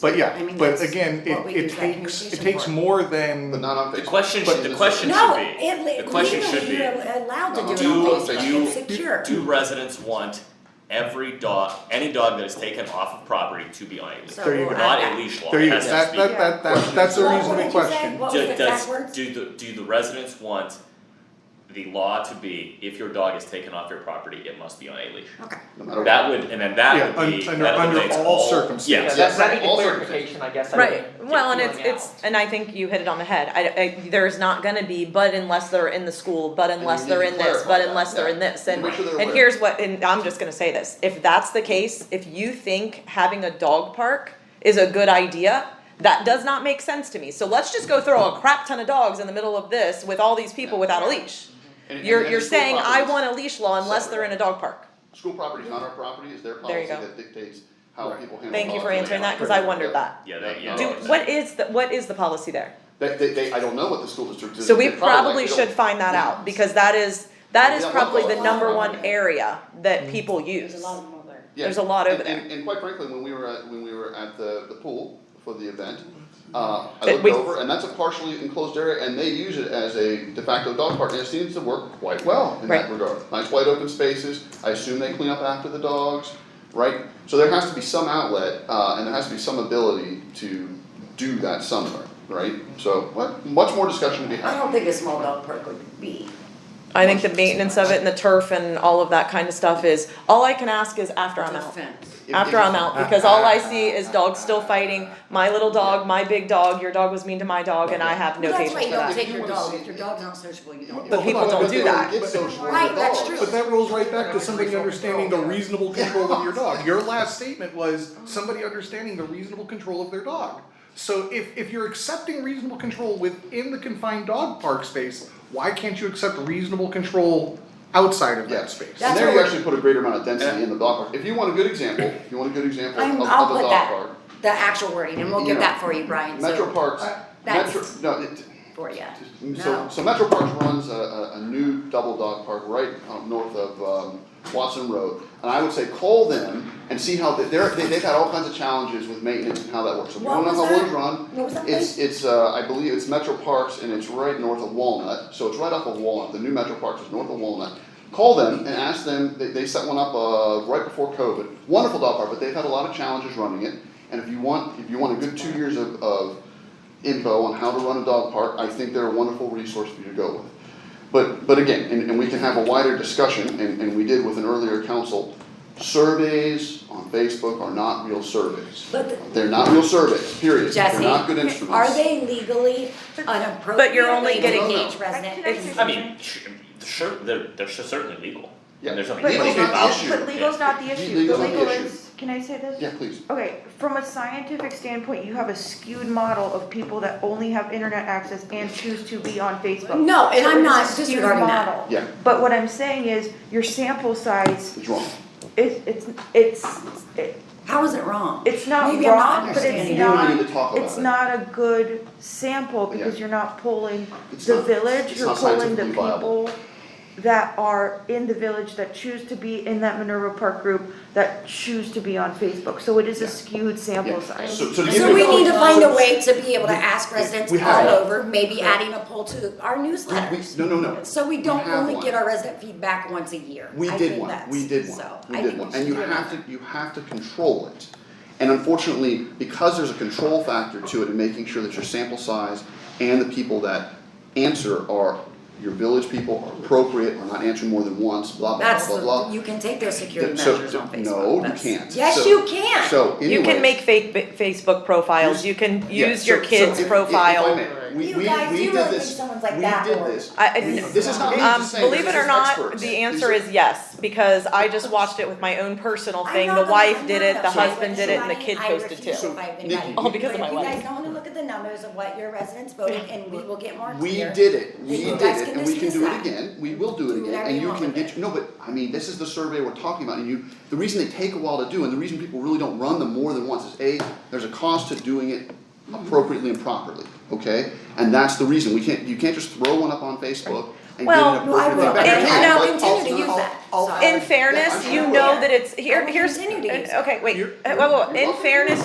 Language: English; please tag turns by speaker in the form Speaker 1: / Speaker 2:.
Speaker 1: But yeah,
Speaker 2: I mean,
Speaker 1: but
Speaker 2: that's
Speaker 1: again,
Speaker 2: what we
Speaker 1: it, it
Speaker 2: use that
Speaker 1: takes it
Speaker 2: communication
Speaker 1: takes
Speaker 2: for.
Speaker 1: more than
Speaker 3: But not on Facebook.
Speaker 4: The question
Speaker 1: But
Speaker 4: should, the
Speaker 3: this
Speaker 4: question
Speaker 3: is-
Speaker 2: No,
Speaker 4: should be,
Speaker 2: it,
Speaker 4: the question
Speaker 2: legally,
Speaker 4: should be, uh,
Speaker 2: you're allowed to do it
Speaker 4: Do
Speaker 2: on
Speaker 4: you-
Speaker 2: Facebook, it's secure.
Speaker 4: do residents want every dog, any dog that is taken off of property to be on a leash?
Speaker 2: So uh,
Speaker 1: There you go.
Speaker 4: Not
Speaker 2: I-
Speaker 4: a leash law,
Speaker 1: there you
Speaker 4: it
Speaker 1: go.
Speaker 4: has to
Speaker 1: That,
Speaker 4: be.
Speaker 1: that, that, that, that's a
Speaker 2: What- what
Speaker 1: reasonable
Speaker 2: did you say?
Speaker 1: question.
Speaker 2: What- was
Speaker 4: Do-
Speaker 2: the
Speaker 4: does-
Speaker 2: backwards?
Speaker 4: do the, do the residents want the law to be, if your dog is taken off your property, it must be on a leash?
Speaker 2: Okay,
Speaker 3: No matter
Speaker 4: That
Speaker 3: what.
Speaker 4: would, and then that
Speaker 1: Yeah,
Speaker 4: would be,
Speaker 1: un- under-
Speaker 4: that
Speaker 1: under
Speaker 4: eliminates
Speaker 1: all circumstances.
Speaker 4: yes.
Speaker 5: Yeah, that's, I need
Speaker 3: all
Speaker 5: clarification, I guess, I
Speaker 6: Right,
Speaker 5: didn't
Speaker 6: well,
Speaker 5: get
Speaker 6: and it's,
Speaker 5: feeling
Speaker 6: it's,
Speaker 5: out.
Speaker 6: and I think you hit it on the head, I, I, there's not gonna be, but unless they're in the school, but unless
Speaker 3: need
Speaker 6: they're
Speaker 3: to
Speaker 6: in this,
Speaker 3: clarify
Speaker 6: but
Speaker 3: that,
Speaker 6: unless they're
Speaker 3: yeah.
Speaker 6: in this,
Speaker 3: And
Speaker 6: and,
Speaker 3: make sure they're
Speaker 6: and
Speaker 3: aware.
Speaker 6: here's what, and I'm just gonna say this, if that's the case, if you think having a dog park is a good idea, that does not make sense to me, so let's just go throw a crap ton of dogs in the middle of this with all these people without a leash.
Speaker 3: And- and-
Speaker 6: You're,
Speaker 3: and
Speaker 6: you're
Speaker 3: the school
Speaker 6: saying, I
Speaker 3: properties-
Speaker 6: want a leash law unless
Speaker 3: Sorry.
Speaker 6: they're in a dog park,
Speaker 3: School property is not our property, it's their
Speaker 6: There
Speaker 3: policy
Speaker 6: you go.
Speaker 3: that dictates how
Speaker 1: Right.
Speaker 3: people handle.
Speaker 6: thank you
Speaker 3: dogs
Speaker 6: for
Speaker 3: and they
Speaker 6: answering that,
Speaker 3: handle
Speaker 6: cause I
Speaker 3: them.
Speaker 6: wondered that.
Speaker 4: Yeah, that, yeah.
Speaker 3: No,
Speaker 6: Do,
Speaker 3: it's-
Speaker 6: what is, the what is the policy there?
Speaker 3: They, they, they, I don't know what the school district is.
Speaker 6: So we
Speaker 3: They like
Speaker 6: probably
Speaker 3: don't-
Speaker 6: should find that out, because that is, that is
Speaker 3: Yeah, what
Speaker 6: probably
Speaker 3: about
Speaker 6: the
Speaker 3: the
Speaker 6: number
Speaker 3: law?
Speaker 6: one area that people use.
Speaker 2: there's a lot of them over there.
Speaker 3: Yeah.
Speaker 6: There's a lot
Speaker 3: And-
Speaker 6: over there.
Speaker 3: And, and quite frankly, when we were at, when we were at the, the pool for the event, uh, I
Speaker 6: But
Speaker 3: looked
Speaker 6: we-
Speaker 3: over and that's a partially enclosed area and they use it as a de facto dog park and it seems to work quite well in that
Speaker 6: Right.
Speaker 3: regard. Nice wide open spaces, I assume they clean up after the dogs, right? So there has to be some outlet, uh, and there has to be some ability to do that somewhere, right? So, what, much more discussion to be
Speaker 2: I
Speaker 3: had.
Speaker 2: don't think a small dog park would be,
Speaker 6: I think the maintenance of it and the turf and all of that kind of stuff is, all I can ask is after I'm
Speaker 2: no
Speaker 6: out.
Speaker 2: offense.
Speaker 3: If-
Speaker 6: After
Speaker 3: if-
Speaker 6: I'm out, because all I see is dogs still fighting, my little dog, my big dog, your dog was mean to my dog, and I have no
Speaker 2: Well,
Speaker 6: patience for
Speaker 2: That's why you don't
Speaker 6: that.
Speaker 2: take
Speaker 3: If you
Speaker 2: your
Speaker 3: wanna
Speaker 2: dog,
Speaker 3: see-
Speaker 2: if your dog's not sociable, you don't.
Speaker 6: But people
Speaker 3: Hold on,
Speaker 6: don't
Speaker 3: they
Speaker 6: do that.
Speaker 3: get social with
Speaker 2: Right,
Speaker 3: the
Speaker 2: that's
Speaker 3: dogs.
Speaker 2: true.
Speaker 1: But that rolls right back to somebody understanding the reasonable
Speaker 2: Oh.
Speaker 1: control of your dog. Your last statement was somebody understanding the reasonable control of their dog. So if, if you're accepting reasonable control within the confined dog park space, why can't you accept reasonable control outside of
Speaker 3: Yeah.
Speaker 1: that space?
Speaker 2: That's
Speaker 3: And there you
Speaker 2: what-
Speaker 3: actually put a greater amount of density in the dog park. If you want a good example, if you want a good example of,
Speaker 2: I'm,
Speaker 3: of
Speaker 2: I'll
Speaker 3: the
Speaker 2: put
Speaker 3: dog
Speaker 2: that,
Speaker 3: park,
Speaker 2: the actual wording, and we'll
Speaker 3: You
Speaker 2: get
Speaker 3: know,
Speaker 2: that for you, Brian,
Speaker 3: Metro
Speaker 2: so,
Speaker 3: Parks,
Speaker 2: That's-
Speaker 3: Metro, no, it,
Speaker 2: for you.
Speaker 3: so,
Speaker 2: No.
Speaker 3: so Metro Parks runs a, a, a new double dog park right up north of, um, Watson Road. And I would say call them and see how, they- they're, they, they've had all kinds of challenges with maintenance and how that works. If you
Speaker 2: What
Speaker 3: don't know
Speaker 2: was
Speaker 3: how
Speaker 2: that?
Speaker 3: one's run,
Speaker 2: What was that
Speaker 3: it's, it's, uh, I believe it's Metro Parks and it's right north of Walnut, so it's right off of Walnut, the new Metro Parks is north of Walnut. Call them and ask them, they, they set one up, uh, right before COVID, wonderful dog park, but they've had a lot of challenges running it. And if you want, if you want a good two years of, of info on how to run a dog park, I think they're a wonderful resource for you to go with. But, but again, and, and we can have a wider discussion, and, and we did with an earlier council, surveys on Facebook are not real surveys.
Speaker 2: But the-
Speaker 3: They're not real surveys, period. They're
Speaker 2: Jesse,
Speaker 3: not good instruments.
Speaker 2: are they legally unappropriate?
Speaker 6: But you're only getting-
Speaker 2: Each resident.
Speaker 7: Can I say-
Speaker 4: I mean, sh- sure, they're, they're certainly legal,
Speaker 3: Yeah.
Speaker 4: and there's nothing
Speaker 7: But
Speaker 4: illegal
Speaker 3: legal's
Speaker 4: about
Speaker 3: not
Speaker 4: it.
Speaker 3: the issue.
Speaker 7: But legal's not the issue, the
Speaker 3: Legal's not the
Speaker 7: legal
Speaker 3: issue.
Speaker 7: is, can I say this?
Speaker 3: Yeah, please.
Speaker 7: Okay, from a scientific standpoint, you have a skewed model of people that only have internet access and choose to be on Facebook.
Speaker 2: No, and
Speaker 7: So
Speaker 2: I'm
Speaker 7: it's a
Speaker 2: not
Speaker 7: skewed
Speaker 2: disregarding that.
Speaker 7: model.
Speaker 3: Yeah.
Speaker 7: But what I'm saying is, your sample size,
Speaker 3: It's wrong.
Speaker 7: is it's, it's, it-
Speaker 2: How is it wrong?
Speaker 7: it's not
Speaker 2: Maybe I'm not
Speaker 7: wrong, but
Speaker 2: understanding.
Speaker 7: it's
Speaker 3: You don't
Speaker 7: not,
Speaker 3: need to talk about
Speaker 7: it's
Speaker 3: it.
Speaker 7: not a good sample, because
Speaker 3: Yeah.
Speaker 7: you're not pulling
Speaker 3: It's
Speaker 7: the
Speaker 3: not-
Speaker 7: village,
Speaker 3: it's
Speaker 7: you're
Speaker 3: not
Speaker 7: pulling the
Speaker 3: scientifically viable.
Speaker 7: people that are in the village, that choose to be in that Minerva Park group, that choose to be on Facebook, so it is a
Speaker 3: Yeah.
Speaker 7: skewed
Speaker 3: Yeah.
Speaker 7: sample size.
Speaker 3: So, so to give
Speaker 2: So
Speaker 3: you
Speaker 2: we
Speaker 3: a-
Speaker 2: need to find a way to be able to ask residents
Speaker 3: we
Speaker 2: all
Speaker 3: have-
Speaker 2: over, maybe adding a poll to our
Speaker 3: we-
Speaker 2: newsletters.
Speaker 3: No, no, no.
Speaker 2: So we don't
Speaker 3: have
Speaker 2: only
Speaker 3: one.
Speaker 2: get our resident feedback once a year.
Speaker 3: We
Speaker 2: I
Speaker 3: did
Speaker 2: think
Speaker 3: one,
Speaker 2: that's-
Speaker 3: we did one,
Speaker 2: So
Speaker 3: we
Speaker 2: I
Speaker 3: did
Speaker 2: think
Speaker 3: one,
Speaker 2: we should
Speaker 3: and you
Speaker 2: do
Speaker 3: have
Speaker 2: another.
Speaker 3: to, you have to control it. And unfortunately, because there's a control factor to it and making sure that your sample size and the people that answer are, your village people are appropriate, are not answering more than once, blah, blah,
Speaker 2: That's,
Speaker 3: blah, blah,
Speaker 2: the-
Speaker 3: blah.
Speaker 2: you can take their security
Speaker 3: So-
Speaker 2: measures on Facebook.
Speaker 3: No, you
Speaker 2: That's-
Speaker 3: can't.
Speaker 2: Yes,
Speaker 3: So-
Speaker 2: you can.
Speaker 3: So
Speaker 6: You
Speaker 3: anyways,
Speaker 6: can make fake ba- Facebook profiles, you can
Speaker 3: yeah,
Speaker 6: use
Speaker 3: so-
Speaker 6: your
Speaker 3: so if-
Speaker 6: kid's
Speaker 3: if- if I
Speaker 6: profile.
Speaker 3: may, we-
Speaker 2: You
Speaker 3: we-
Speaker 2: guys,
Speaker 3: we
Speaker 2: you
Speaker 3: did
Speaker 2: really think
Speaker 3: this.
Speaker 2: someone's like
Speaker 3: We
Speaker 2: that,
Speaker 3: did
Speaker 2: or-
Speaker 3: this.
Speaker 6: I,
Speaker 3: We-
Speaker 6: I-
Speaker 3: This is not me
Speaker 6: um,
Speaker 3: just saying,
Speaker 6: believe
Speaker 3: this
Speaker 6: it
Speaker 3: is
Speaker 6: or not,
Speaker 3: experts.
Speaker 6: the
Speaker 3: These
Speaker 6: answer
Speaker 3: are-
Speaker 6: is yes, because I just watched it with my own personal
Speaker 2: I'm
Speaker 6: thing.
Speaker 2: not
Speaker 6: The
Speaker 2: gonna-
Speaker 6: wife
Speaker 2: I'm
Speaker 6: did
Speaker 2: not
Speaker 6: it, the
Speaker 2: gonna
Speaker 6: husband
Speaker 2: say
Speaker 6: did it, and the
Speaker 2: anybody.
Speaker 6: kid
Speaker 2: I
Speaker 6: posted
Speaker 2: refuse
Speaker 6: too.
Speaker 2: to fight
Speaker 3: Nikki-
Speaker 2: anybody.
Speaker 6: All because
Speaker 2: But
Speaker 6: of my
Speaker 2: If you
Speaker 6: wedding.
Speaker 2: guys don't wanna look at the numbers of what your residents voted, and we will get more
Speaker 3: We
Speaker 2: clear,
Speaker 3: did it,
Speaker 2: then
Speaker 3: we
Speaker 2: you
Speaker 3: did
Speaker 2: guys
Speaker 3: it,
Speaker 2: can
Speaker 3: and we can
Speaker 2: dismiss
Speaker 3: do it
Speaker 2: that.
Speaker 3: again, we will do
Speaker 2: Do
Speaker 3: it again,
Speaker 2: whatever
Speaker 3: and
Speaker 2: you
Speaker 3: you
Speaker 2: want
Speaker 3: can
Speaker 2: with it.
Speaker 3: get, no, but, I mean, this is the survey we're talking about, and you, the reason they take a while to do, and the reason people really don't run them more than once is, A, there's a cost to doing it appropriately and properly, okay? And that's the reason, we can't, you can't just throw one up on Facebook and get
Speaker 6: Well,
Speaker 3: an
Speaker 2: No, I
Speaker 3: appropriate
Speaker 2: will,
Speaker 3: feedback.
Speaker 2: and
Speaker 6: it-
Speaker 3: You
Speaker 6: no,
Speaker 3: can,
Speaker 2: I'll
Speaker 3: but
Speaker 2: continue to
Speaker 3: also-
Speaker 2: use that,
Speaker 1: I'll-
Speaker 2: so.
Speaker 6: In fairness, you know that it's, here, here's,
Speaker 2: I will continue to use it.
Speaker 6: okay, wait,
Speaker 3: You're-
Speaker 6: Uh, whoa, whoa,
Speaker 3: you're
Speaker 6: in
Speaker 3: welcome.
Speaker 6: fairness,